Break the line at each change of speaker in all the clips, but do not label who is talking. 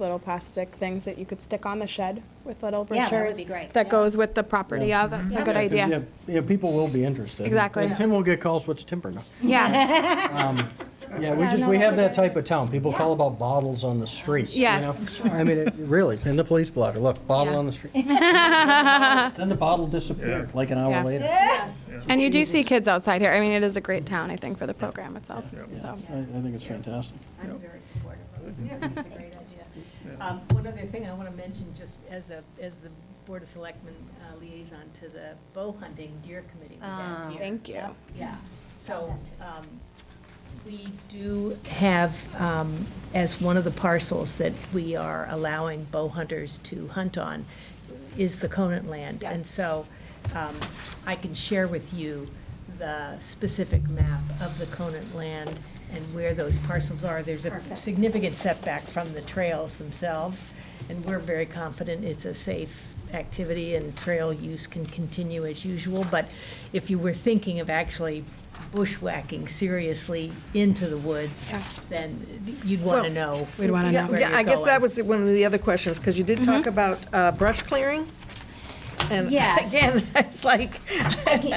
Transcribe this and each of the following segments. little plastic things that you could stick on the shed with little
Yeah,
brochures.
that would be great,
That
yeah.
goes with the property,
Yeah.
yeah, that's a
Yeah.
good
Yeah, 'cause,
idea.
Yeah, yeah, people will be interested.
Exactly.
And Tim will get calls, what's timber? No.
Yeah,
Yeah, we
Yeah,
just,
no,
we
that's
have that
okay.
type of town. People call about bottles on the streets. you know?
Yes.
I mean, it- really, in the police blotter, look, bottle
Yeah.
on the street. Then the bottle disappeared, like an
Yeah.
hour later.
and you do see kids outside here. I mean, it is a great town, I think, for the program itself, so.
I, I think it's fantastic.
I'm very supportive of it. I think It's a great idea. Um, One other thing I want to mention, just as a, as the Board of Selectmen uh, liaison to the bow hunting deer committee we
Ah.
have here.
Thank you.
Yeah, so, um, we do have, um, as one of the parcels that we are allowing bow hunters to hunt on, is the Conant land. And
Yes.
so, um, I can share with you the specific map of the Conant land and where those parcels are. There's a significant setback from the trails themselves, and we're very confident it's a safe activity and trail use can continue as usual. But if you were thinking of actually bushwhacking seriously into the woods,
Yeah.
then you'd want to
Well,
know.
We'd wanna
Yeah,
know.
where
yeah,
you're
I guess that
going.
was one of the other questions, because you did
Mm-hmm.
talk about uh, brush clearing. And
Yes.
again, it's like,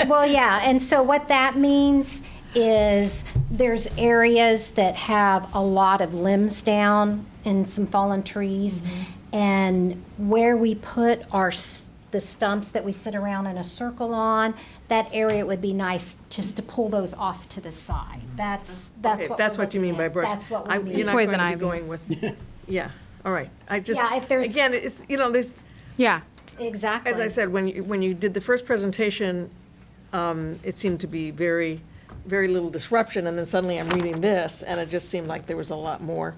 Well, yeah, and so what that means is there's areas that have a lot of limbs down and some fallen trees.
Mm-hmm.
And where we put our, s- the stumps that we sit around in a circle on, that area would be nice just to pull those off to the side. That's, that's
Mm-hmm. okay,
what.
that's
we're
what you
looking
mean by
at.
brush.
That's what
I-
we mean.
You're not
Poison
going to
ivy.
be going with, yeah, all right. I just,
Yeah, if there's-
again, it's, you know, there's,
Yeah,
Exactly.
as I said, when you, when you did the first presentation, um, it seemed to be very, very little disruption, and then suddenly I'm reading this, and it just seemed like there was a lot more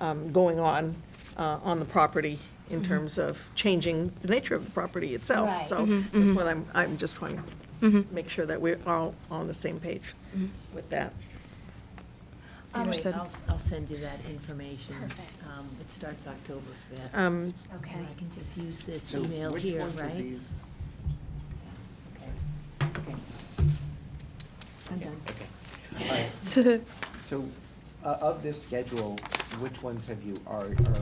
um, going on, uh, on the property in terms of changing the nature of the property itself.
Right.
So that's what I'm, I'm just trying to make sure that we're all on the same page with that.
Anyway,
Understood.
I'll, I'll send you that information. Um, It starts October 5th.
Um,
Okay.
And I can just use this
So
email
which
here,
ones of
right?
these-
I'm done.
So, uh, of this schedule, which ones have you, are, are,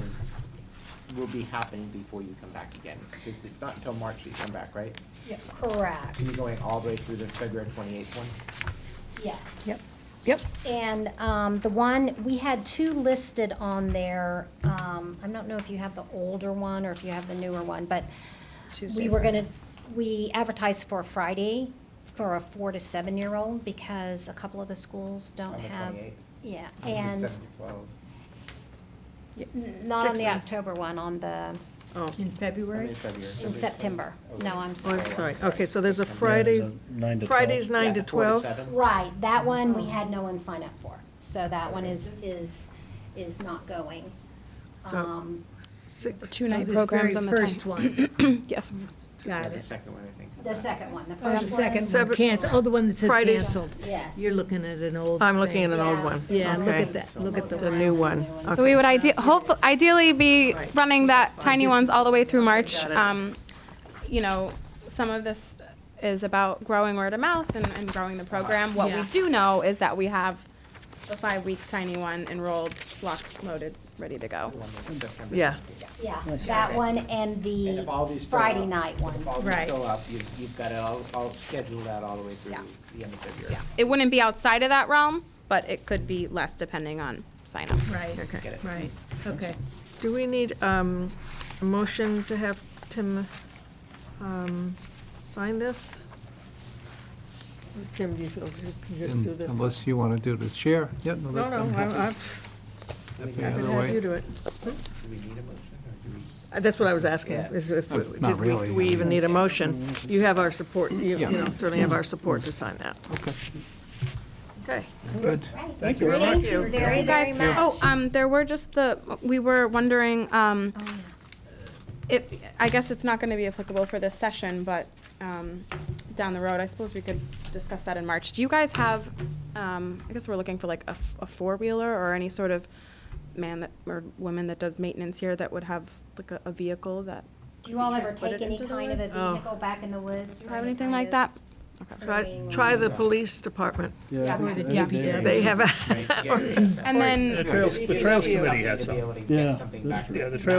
will be happening before you come back again? Because it's not until March that you come back, right?
Correct,
So you're going all the way through the February twenty-eighth one?
yes.
Yep.
And um, the one, we had two listed on there. um, I don't know if you have the older one or if you have the newer one, but we were going to, we advertised for Friday for a four to seven-year-old because a couple of the schools don't
On the
have.
28th?
Yeah,
This is
and
seven to twelve.
n- not on the
16th.
October one, on the,
Oh,
In
I'm
February?
in February.
in September. No, I'm
oh,
sorry.
I'm sorry. Okay, so there's a
Yeah, there's
Friday,
a nine to 12.
Friday's nine to
Yeah, four
12.
seven.
Right, that one,
Oh.
we had no one sign up for. So that one is, is, is not going.
So-
Um,
six-
Two night
This
programs
very
on the
First
time.
one,
Yes,
Yeah,
got
The
it.
second one, I think. is
The
not-
second one, the
Oh,
first
the
one.
second
Seven-
one, cancel, oh, the one that says
Fridays.
canceled.
Yes.
You're looking at an old
I'm looking at
thing.
an old
Yeah.
one.
Yeah, look
Okay.
at that, look at the
The new one.
so we would ide, hopefully, ideally be
Right.
running that tiny ones all the way through March.
Got it.
Um, You know, some of this is about growing word of mouth and, and growing the program. What we
Yeah.
do know is that we have the five-week tiny one enrolled, locked, loaded, ready to go.
The one that's September.
Yeah.
Yeah, that one and
And if all
the
these fill
Friday
up-
night one.
If all these
Right.
fill up, you, you've got it all, all scheduled out all the way through the end of February.
Yeah, it wouldn't be outside of that realm, but it could be less depending on sign up.
Right,
Okay.
right, okay.
Do we need um, a motion to have Tim um, sign this? Or Tim, do you feel you can just do this? No,
Unless you want to do the chair. Yeah, no, that-
no,
I'm
I-
happy-
I-
Do we
I
need-
Yeah.
can
Either
have
way.
you do it.
do we need a motion, or do we?
Uh, That's what I was asking,
Yeah.
is if, we-
Not
did we,
really.
do we even need a motion? You have our support, you you
Yeah.
know, certainly have our support to sign that.
Okay.
Okay.
Good.
Thank you very much. Thank you very,
You guys-
very much.
Oh, um, there were just the, we were wondering, um,
Oh, yeah.
it, I guess it's not gonna be applicable for this session, but, um, down the road, I suppose we could discuss that in March. Do you guys have, um, I guess we're looking for like a, f- a four-wheeler or any sort of man that, or woman that does maintenance here that would have like a, a vehicle that?
Do you all
could be
ever
transported
take any
into the
kind of a
woods?
vehicle back in the woods?
Do you
for
have
any
anything
kind
like
of-
that?
Try, try the police department.
Yeah.
Or the
Yeah.
DPW.
They have, a-
Right, yeah,
And then.
The Trails, the Trails Committee
something to
has some.
be able to get
Yeah,
something
that's
back.
true.
Yeah, the Trails